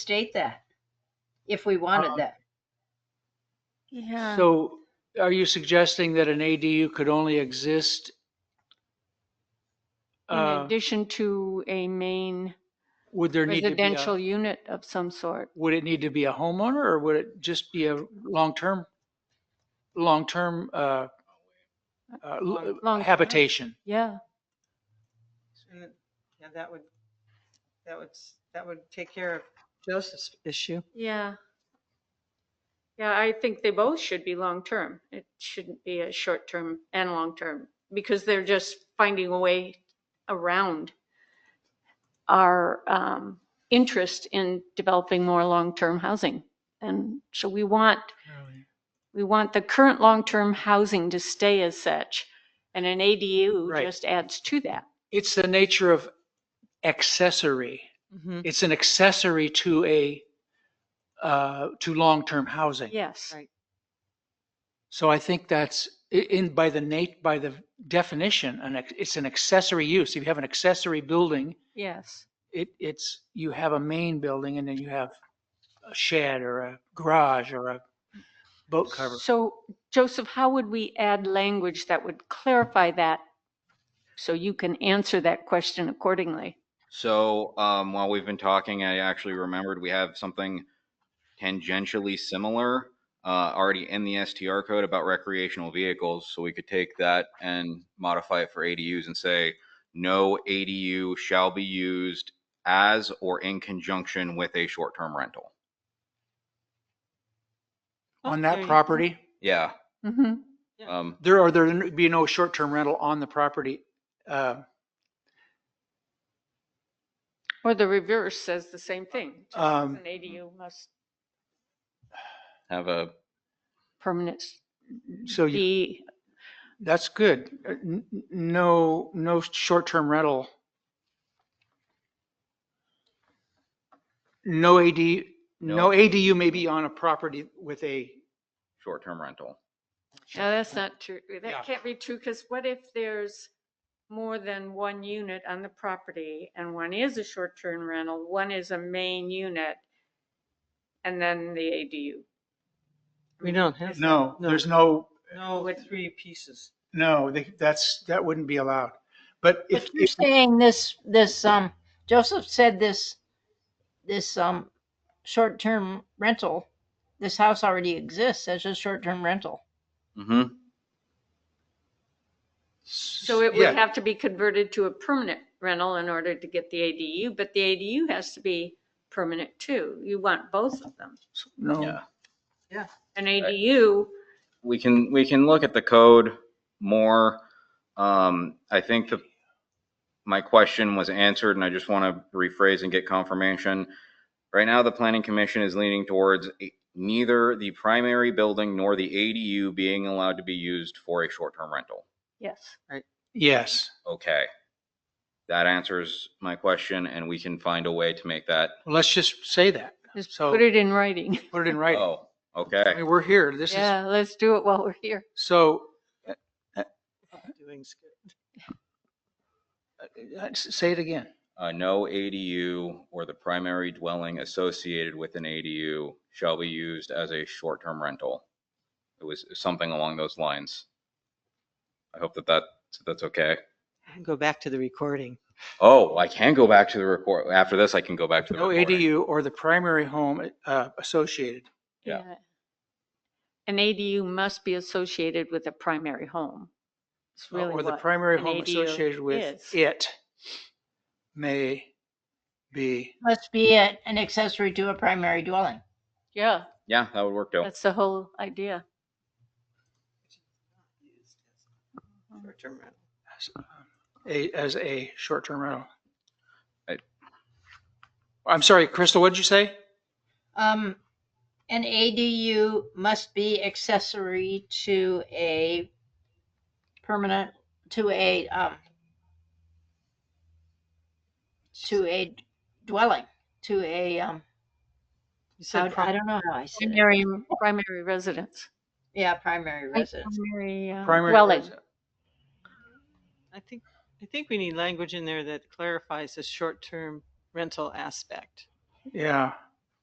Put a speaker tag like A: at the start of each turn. A: state that if we wanted
B: Um,
A: that.
C: Yeah.
B: So are you suggesting that an ADU could only exist?
C: In
B: uh,
C: addition to a main
B: Would there need to be,
C: residential
B: a-
C: unit of some sort.
B: would it need to be a homeowner or would it just be a long-term, long-term uh, uh, l-
C: Long-term.
B: habitation?
C: Yeah.
D: And then- Yeah, that would, that would, s- that would take care of Joseph's issue.
C: Yeah. Yeah, I think they both should be long-term. It shouldn't be a short-term and long-term because they're just finding a way around our um, interest in developing more long-term housing. And so we want We want the current long-term housing to stay as such, and an ADU
B: Right.
C: just adds to that.
B: It's the nature of accessory.
D: Mhm.
B: It's an accessory to a, uh, to long-term housing.
C: Yes.
D: Right.
B: So I think that's i- in by the nat, by the definition, an ac- it's an accessory use. If you have an accessory building,
C: Yes.
B: it, it's, you have a main building and then you have a shed or a garage or a boat cover.
C: So Joseph, how would we add language that would clarify that? So you can answer that question accordingly.
E: So um, while we've been talking, I actually remembered we have something tangentially similar uh, already in the STR code about recreational vehicles. So we could take that and modify it for ADUs and say, no ADU shall be used as or in conjunction with a short-term rental.
B: On
D: There
B: that
D: you go.
B: property,
E: Yeah.
C: Mm-hmm.
D: Yeah.
E: Um,
B: there are, there'd be no short-term rental on the property. Uh,
C: Or the reverse says the same thing. just as
B: Um,
C: An ADU must
E: have a,
C: permanent
B: So you
C: be,
B: That's good. Uh, n- n- No, no short-term rental. No AD, no
E: No.
B: ADU may be on a property with a,
E: short-term rental.
C: no, that's not true.
B: Yeah.
C: That can't be true because what if there's more than one unit on the property, and one is a short-term rental, one is a main unit, and then the ADU.
D: We don't have.
B: no,
D: No.
B: there's no,
D: No,
C: What-
D: three pieces.
B: no, they- that's, that wouldn't be allowed. But if,
F: But you're saying this, this, um, Joseph said this, this, um, short-term rental, this house already exists as a short-term rental.
E: hmm
C: So it
B: yeah,
C: would have to be converted to a permanent rental in order to get the ADU, but the ADU has to be permanent too. You want both of them.
B: No,
E: Yeah.
C: An ADU,
E: we can, we can look at the code more. Um, I think the, my question was answered and I just want to rephrase and get confirmation. Right now, the planning commission is leaning towards a- neither the primary building nor the ADU being allowed to be used for a short-term rental.
C: yes.
B: yes.
E: Okay. That answers my question and we can find a way to make that.
B: Well, Let's just say that.
C: Just
B: So-
C: put it in writing.
B: Put it in writing.
E: Oh,
B: I
E: okay.
B: mean, we're here. This is,
C: Yeah, let's do it while we're here.
B: so
D: Doing s-
B: uh, uh, say it again.
E: Uh, no ADU or the primary dwelling associated with an ADU shall be used as a short-term rental. It was something along those lines. I hope that that, that's okay.
D: Go back to the recording.
E: Oh, I can go back to the record. After this, I can go back to the
B: No
E: recording.
B: ADU or the primary home uh, associated.
E: Yeah.
C: An ADU must be associated with a primary home. It's really
B: Oh, Or the
C: what
B: primary
C: an
B: home
C: ADU
B: associated with
C: is.
B: it may be,
F: Must be a- an accessory to a primary dwelling.
C: Yeah,
E: Yeah, that would work, Joe.
C: that's the whole idea.
D: Short-term rental.
B: a- as a short-term rental.
E: I-
B: I'm sorry, Crystal, what did you say?
F: Um, an ADU must be accessory to a permanent, to a, um, to a dwelling, to a, um, I
D: You said
F: I don't know how I said it.
C: Primary, primary residence.
F: Yeah, primary residence.
C: Primary uh,
B: Primary
C: dwelling.
B: resi-
D: I think, I think we need language in there that clarifies the short-term rental aspect.
B: Yeah,